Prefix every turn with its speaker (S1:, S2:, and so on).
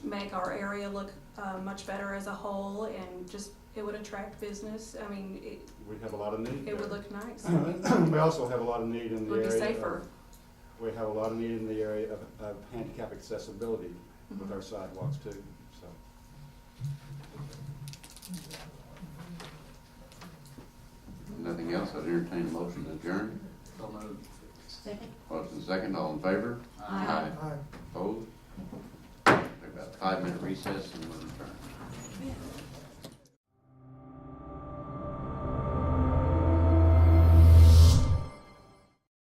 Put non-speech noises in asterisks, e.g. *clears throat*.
S1: make our area look uh, much better as a whole and just, it would attract business. I mean, it,
S2: We have a lot of need
S1: it would
S2: *clears throat* there.
S1: look nice.
S2: We also have a lot of need in
S1: It
S2: the
S1: would
S2: area.
S1: be
S2: of-
S1: safer.
S2: We have a lot of need in the area of, of handicap accessibility with
S1: Mhm.
S2: our sidewalks too, so.
S3: Nothing else, I'd entertain a motion to adjourn.
S4: So moved.
S5: Second?
S3: Motion second, all in favor?
S5: Aye.
S3: Opposed? Take about five minute recess and we'll return.